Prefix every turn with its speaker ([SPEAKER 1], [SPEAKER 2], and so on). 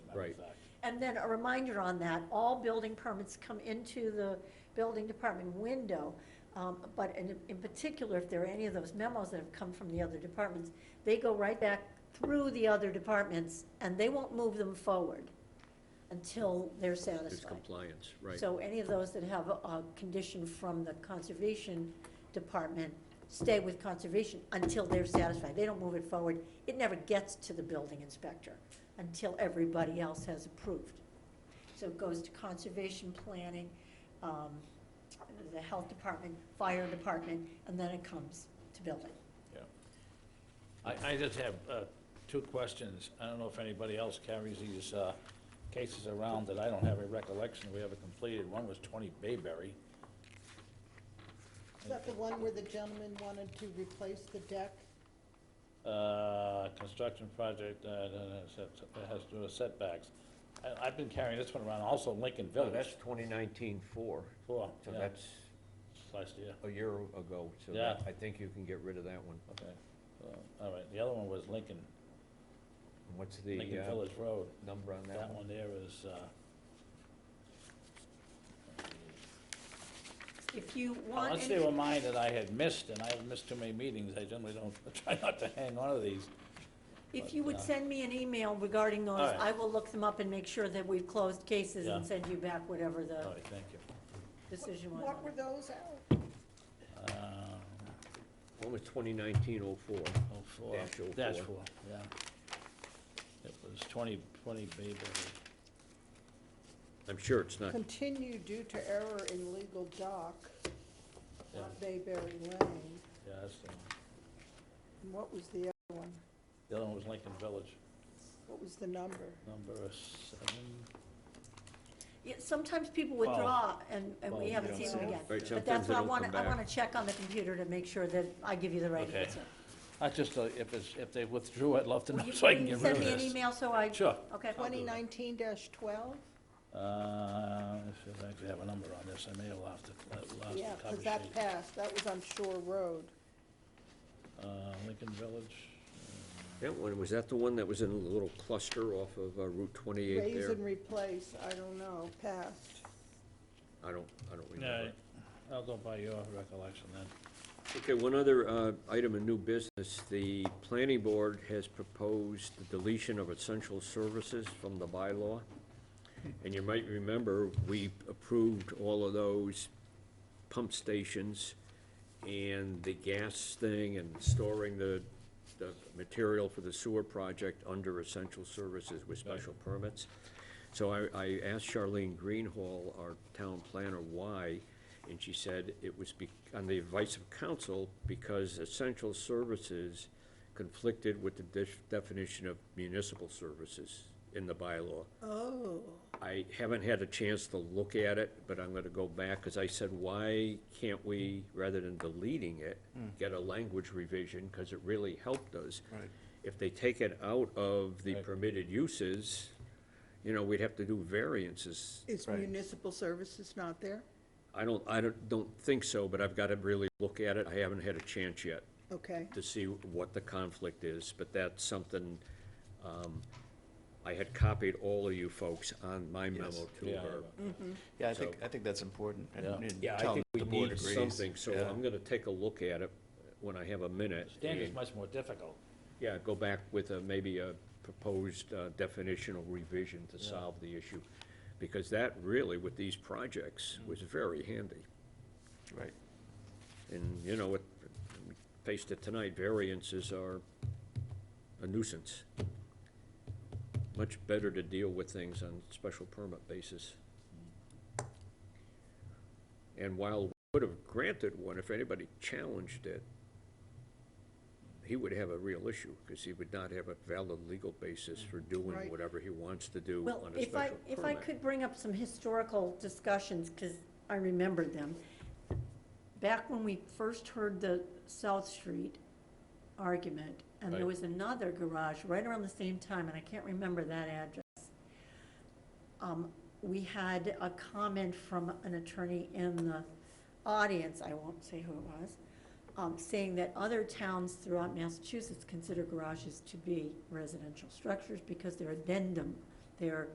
[SPEAKER 1] Right.
[SPEAKER 2] And then a reminder on that, all building permits come into the building department window. um, But in, in particular, if there are any of those memos that have come from the other departments, they go right back through the other departments and they won't move them forward until they're
[SPEAKER 1] It's
[SPEAKER 2] satisfied.
[SPEAKER 1] compliance, right.
[SPEAKER 2] So any of those that have a- a condition from the conservation department, stay with conservation until they're satisfied. They don't move it forward. It never gets to the building inspector until everybody else has approved. So it goes to conservation planning, um, the health department, fire department, and then it comes to building.
[SPEAKER 3] I, I just have uh, two questions. I don't know if anybody else carries these uh, cases around that I don't have a recollection we ever completed. One was 20 Bayberry.
[SPEAKER 4] Is that the one where the gentleman wanted to replace the deck?
[SPEAKER 3] Uh, Construction project, uh, no, no, set- it has to do with setbacks. I- I've been carrying this one around, also Lincoln
[SPEAKER 1] Oh, That's
[SPEAKER 3] Village.
[SPEAKER 1] 2019 four,
[SPEAKER 3] Four,
[SPEAKER 1] so
[SPEAKER 3] yeah,
[SPEAKER 1] that's
[SPEAKER 3] Last year,
[SPEAKER 1] a year ago, so
[SPEAKER 3] Yeah.
[SPEAKER 1] that- I think you can get rid of that one.
[SPEAKER 3] okay. Uh, All right, the other one was Lincoln,
[SPEAKER 1] What's the
[SPEAKER 3] Lincoln
[SPEAKER 1] uh,
[SPEAKER 3] Village Road.
[SPEAKER 1] number on that
[SPEAKER 3] That
[SPEAKER 1] one?
[SPEAKER 3] one there is, uh,
[SPEAKER 2] If you
[SPEAKER 3] Well,
[SPEAKER 2] want,
[SPEAKER 3] Unless they were
[SPEAKER 2] any-
[SPEAKER 3] mine that I had missed, and I have missed too many meetings, I generally don't, try not to hang on to these.
[SPEAKER 2] if you would
[SPEAKER 3] Yeah.
[SPEAKER 2] send me an email regarding those,
[SPEAKER 3] All right.
[SPEAKER 2] I will look them up and make sure that we've closed cases and
[SPEAKER 3] Yeah.
[SPEAKER 2] send you back whatever
[SPEAKER 3] All
[SPEAKER 2] the
[SPEAKER 3] right, thank you.
[SPEAKER 2] decision was.
[SPEAKER 4] What
[SPEAKER 2] on
[SPEAKER 4] were
[SPEAKER 2] it.
[SPEAKER 4] those out?
[SPEAKER 3] Um,
[SPEAKER 1] One was 2019 04.
[SPEAKER 3] oh, four.
[SPEAKER 1] Dash oh
[SPEAKER 3] Dash
[SPEAKER 1] four.
[SPEAKER 3] four, yeah. It was twenty, twenty Bayberry.
[SPEAKER 1] I'm sure it's not,
[SPEAKER 4] Continue due to error in legal dock
[SPEAKER 3] Yeah.
[SPEAKER 4] on Bayberry Lane.
[SPEAKER 3] yeah, that's the one.
[SPEAKER 4] And what was the other one?
[SPEAKER 3] The other one was Lincoln Village,
[SPEAKER 4] What was the number?
[SPEAKER 3] number seven.
[SPEAKER 2] Yeah, sometimes people
[SPEAKER 3] Well-
[SPEAKER 2] withdraw and, and
[SPEAKER 3] well,
[SPEAKER 2] we
[SPEAKER 3] you
[SPEAKER 2] haven't
[SPEAKER 3] don't
[SPEAKER 2] seen
[SPEAKER 3] see
[SPEAKER 2] them
[SPEAKER 3] it.
[SPEAKER 2] again.
[SPEAKER 1] Right,
[SPEAKER 2] But
[SPEAKER 1] sometimes
[SPEAKER 2] that's
[SPEAKER 1] they
[SPEAKER 2] why I
[SPEAKER 1] don't
[SPEAKER 2] wanna,
[SPEAKER 1] come
[SPEAKER 2] I
[SPEAKER 1] back.
[SPEAKER 2] wanna check on the computer to make sure that I give you the right
[SPEAKER 3] Okay.
[SPEAKER 2] answer.
[SPEAKER 3] I just, uh, if it's, if they withdrew, I'd love to know
[SPEAKER 2] Will you-
[SPEAKER 3] so I can
[SPEAKER 2] will you
[SPEAKER 3] get rid of
[SPEAKER 2] Send me an
[SPEAKER 3] this.
[SPEAKER 2] email so I.
[SPEAKER 3] Sure.
[SPEAKER 2] Okay.
[SPEAKER 3] I'll
[SPEAKER 4] Twenty
[SPEAKER 3] do that.
[SPEAKER 4] nineteen twelve?
[SPEAKER 3] Uh, if I actually have a number on this, I may have lost it, uh, lost the
[SPEAKER 4] Yeah,
[SPEAKER 3] cover
[SPEAKER 4] because that
[SPEAKER 3] sheet.
[SPEAKER 4] passed, that was on Shore Road.
[SPEAKER 3] Uh, Lincoln Village,
[SPEAKER 1] that one, was that the one that was in a little cluster off of uh, Route 28
[SPEAKER 4] Raise
[SPEAKER 1] there?
[SPEAKER 4] and replace, I don't know, passed.
[SPEAKER 1] I don't, I don't
[SPEAKER 3] Yeah,
[SPEAKER 1] remember.
[SPEAKER 3] I'll go by your recollection then.
[SPEAKER 1] Okay, one other uh, item in new business, the planning board has proposed the deletion of essential services from the bylaw. And you might remember, we approved all of those pump stations and the gas thing and storing the, the material for the sewer project under essential services with special permits. So I, I asked Charlene Greenhall, our town planner, why, and she said it was be, on the advice of council, because essential services conflicted with the def- definition of municipal services in the bylaw.
[SPEAKER 4] Oh,
[SPEAKER 1] I haven't had a chance to look at it, but I'm gonna go back, because I said, why can't we, rather than deleting it, get a language revision, because it really helped us. Right. If they take it out of the
[SPEAKER 3] Hmm. Right.
[SPEAKER 1] permitted uses, you know, we'd have to do variances.
[SPEAKER 4] is municipal services not there?
[SPEAKER 1] I don't, I don't, don't think so, but I've gotta really look at it, I haven't had a chance yet
[SPEAKER 4] Okay,
[SPEAKER 1] to see what the conflict is, but that's something, um, I had copied all of you folks on my memo
[SPEAKER 5] Yes.
[SPEAKER 1] to
[SPEAKER 3] Yeah, I
[SPEAKER 1] her.
[SPEAKER 2] Mm-hmm.
[SPEAKER 5] Yeah, I
[SPEAKER 1] So-
[SPEAKER 5] think, I think that's important. and-
[SPEAKER 3] Yeah.
[SPEAKER 5] and
[SPEAKER 1] Yeah, I
[SPEAKER 5] tell
[SPEAKER 1] think we
[SPEAKER 5] the board
[SPEAKER 1] need
[SPEAKER 5] agrees.
[SPEAKER 1] something, so
[SPEAKER 5] Yeah.
[SPEAKER 1] I'm gonna take a look at it when I have a minute.
[SPEAKER 3] Standard's
[SPEAKER 1] and,
[SPEAKER 3] much more difficult.
[SPEAKER 1] Yeah, go back with a, maybe a proposed uh, definitional revision to
[SPEAKER 3] Yeah.
[SPEAKER 1] solve the issue. Because that really, with these projects,
[SPEAKER 5] Mm.
[SPEAKER 1] was very handy.
[SPEAKER 5] Right.
[SPEAKER 1] And, you know, it, we faced it tonight, variances are a nuisance. Much better to deal with things on special permit basis. And while we would have granted one, if anybody challenged it, he would have a real issue, because he would not have a valid legal basis for doing
[SPEAKER 4] Right.
[SPEAKER 1] whatever he wants to do
[SPEAKER 2] Well,
[SPEAKER 1] on a
[SPEAKER 2] if I,
[SPEAKER 1] special
[SPEAKER 2] if I
[SPEAKER 1] permit.
[SPEAKER 2] could bring up some historical discussions, because I remembered them. Back when we first heard the South Street argument, and there
[SPEAKER 1] Right.
[SPEAKER 2] was another garage right around the same time, and I can't remember that address. Um, we had a comment from an attorney in the audience, I won't say who it was, um, saying that other towns throughout Massachusetts consider garages to be residential structures because they're addendum, they're